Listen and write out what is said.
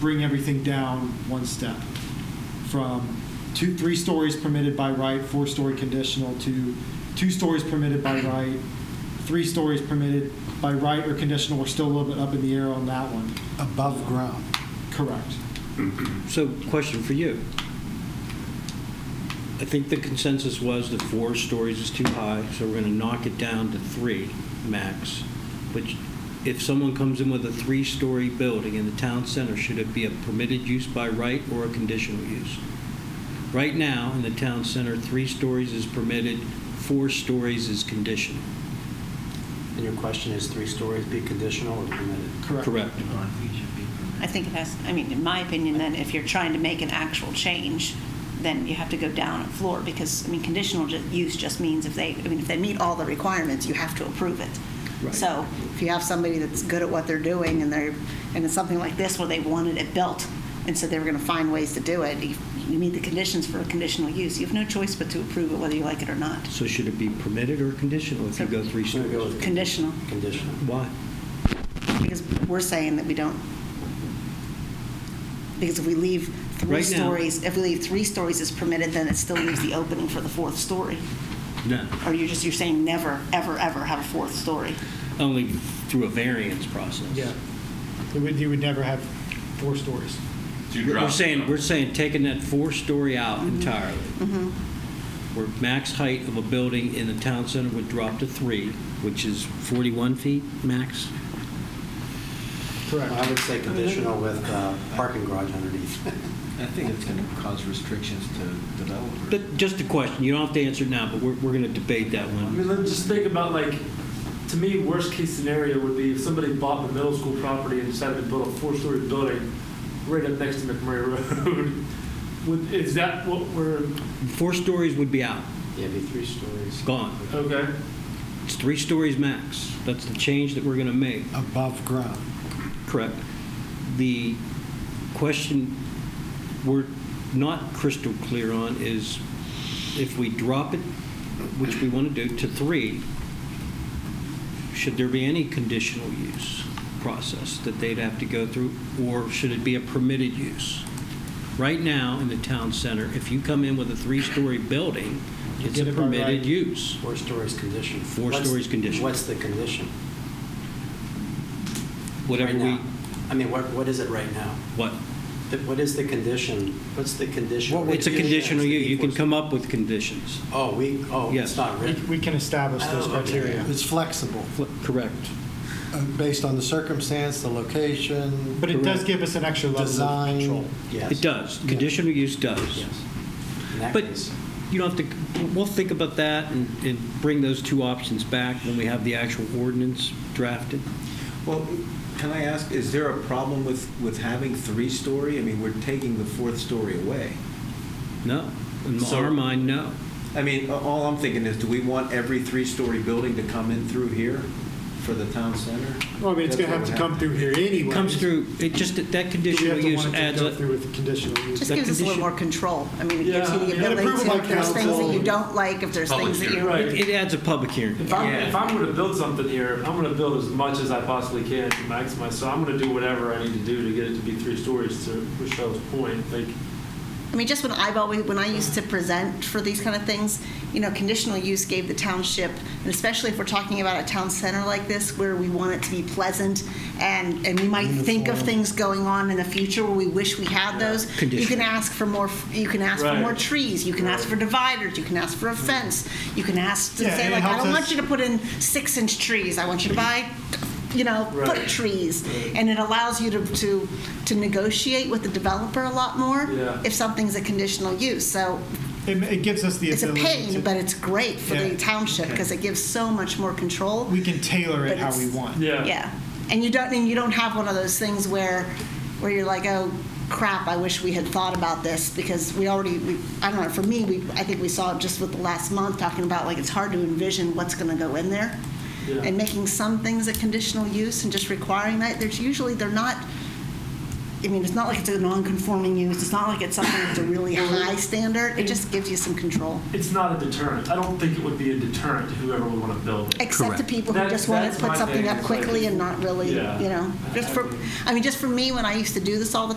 bring everything down one step from two, three stories permitted by right, four story conditional to two stories permitted by right, three stories permitted by right or conditional. We're still a little bit up in the air on that one. above ground. Correct. So, question for you. I think the consensus was that four stories is too high, so we're going to knock it down to three max. But if someone comes in with a three-story building in the town center, should it be a permitted use by right or a conditional use? Right now, in the town center, three stories is permitted, four stories is conditional. And your question is three stories be conditional or permitted? Correct. Correct. I think it has, I mean, in my opinion, then if you're trying to make an actual change, then you have to go down a floor because, I mean, conditional ju- use just means if they, I mean, if they meet all the requirements, you have to approve it. Right. So if you have somebody that's good at what they're doing and they're, and it's something like this where they wanted it built and so they were going to find ways to do it, you you meet the conditions for a conditional use. You have no choice but to approve it whether you like it or not. So should it be permitted or conditional if you go three I'm gonna go stories? with- Conditional. Conditional. Why? Because we're saying that we don't, because if we leave three Right now- stories, if we leave three stories as permitted, then it still leaves the opening for the fourth story. No. Or you're just, you're saying never, ever, ever have a fourth story. Only through a variance process. You would, you would never have four stories. Two We're drops. saying, we're saying taking that four-story out entirely. Mm-hmm. Where max height of a building in the town center would drop to three, which is 41 feet max? Correct. I would say conditional with uh, parking garage underneath. I think it's going to cause restrictions to developers. But just a question, you don't have to answer it now, but we're, we're going to debate that I one. mean, let's just think about like, to me, worst case scenario would be if somebody bought the middle school property and decided to build a four-story building right up next to McMurray Road. Would, is that what we're, Four stories would be out, Yeah, be three stories. gone. okay? It's three stories max. That's the change that we're going to make. Above ground. Correct. The question we're not crystal clear on is if we drop it, which we want to do, to three, should there be any conditional use process that they'd have to go through, or should it be a permitted use? Right now, in the town center, if you come in with a three-story building, You it's get a it by right. permitted use. Four stories conditional. Four What's- stories conditional. What's the condition? Whatever Right we, now? I mean, what, what is it right now? what? The- What is the condition? What's the condition? It's a conditional use. You can come up with conditions. Oh, we, oh, Yes. it's not We, written. we can establish those Oh, okay. criteria. It's flexible, Fl- Correct. uh, based on the circumstance, the location. But it does give us an extra level Design. of control. Yes. It does. Conditional use does. Yes. In that But case. you don't have to, we'll think about that and, and bring those two options back when we have the actual ordinance drafted. Well, can I ask, is there a problem with, with having three-story? I mean, we're taking the fourth story away. No. In So- our mind, no. I mean, a- all I'm thinking is, do we want every three-story building to come in through here for the town center? Well, I mean, it's going That's to what have to would come happen. through here anyway. It comes through, it just, that conditional use adds Go up. through with the conditional use. Just The gives us a condition- little more control. I mean, it gives Yeah, you the and ability approval to, by if there's things that council. you don't like, if there's Public things that hearing. you. Right. It adds a public hearing. If I'm, Yeah. if I'm going to build something here, I'm going to build as much as I possibly can to maximize. So I'm going to do whatever I need to do to get it to be three stories. To Rochelle's point, like I mean, just when I, when I used to present for these kind of things, you know, conditional use gave the township, and especially if we're talking about a town center like this, where we want it to be pleasant, and, and we might think of Uniform. things going on in the future where we wish we had those. You can Conditional. ask for more, you can ask for Right. more trees, you can ask for dividers, you can ask for a fence, you can ask to Yeah, say and it like, I helps don't us- want you to put in six-inch trees, I want you to buy, you know, foot Right. trees. And it allows you to, to, to negotiate with the developer a lot more Yeah. if something's a conditional use. So It, it gives us the it's a ability pain, to, but it's great for Yeah. the township because it gives so much more control. we can tailor it but how it's- we want. yeah, Yeah. And you don't, and you don't have one of those things where, where you're like, oh, crap, I wish we had thought about this because we already, we, I don't know, for me, we, I think we saw it just with the last month talking about like, it's hard to envision what's going to go in there. Yeah. And making some things a conditional use and just requiring that, there's usually, they're not, I mean, it's not like it's a non-conforming use. It's not like it's something that's a really high standard. It just gives you some control. it's not a deterrent. I don't think it would be a deterrent to whoever would want to build it. Except to Correct. people who That- just want that's to put my something thing, up is like- quickly and not really, you Yeah. know, just for, I mean, just for me, when I used to do this all the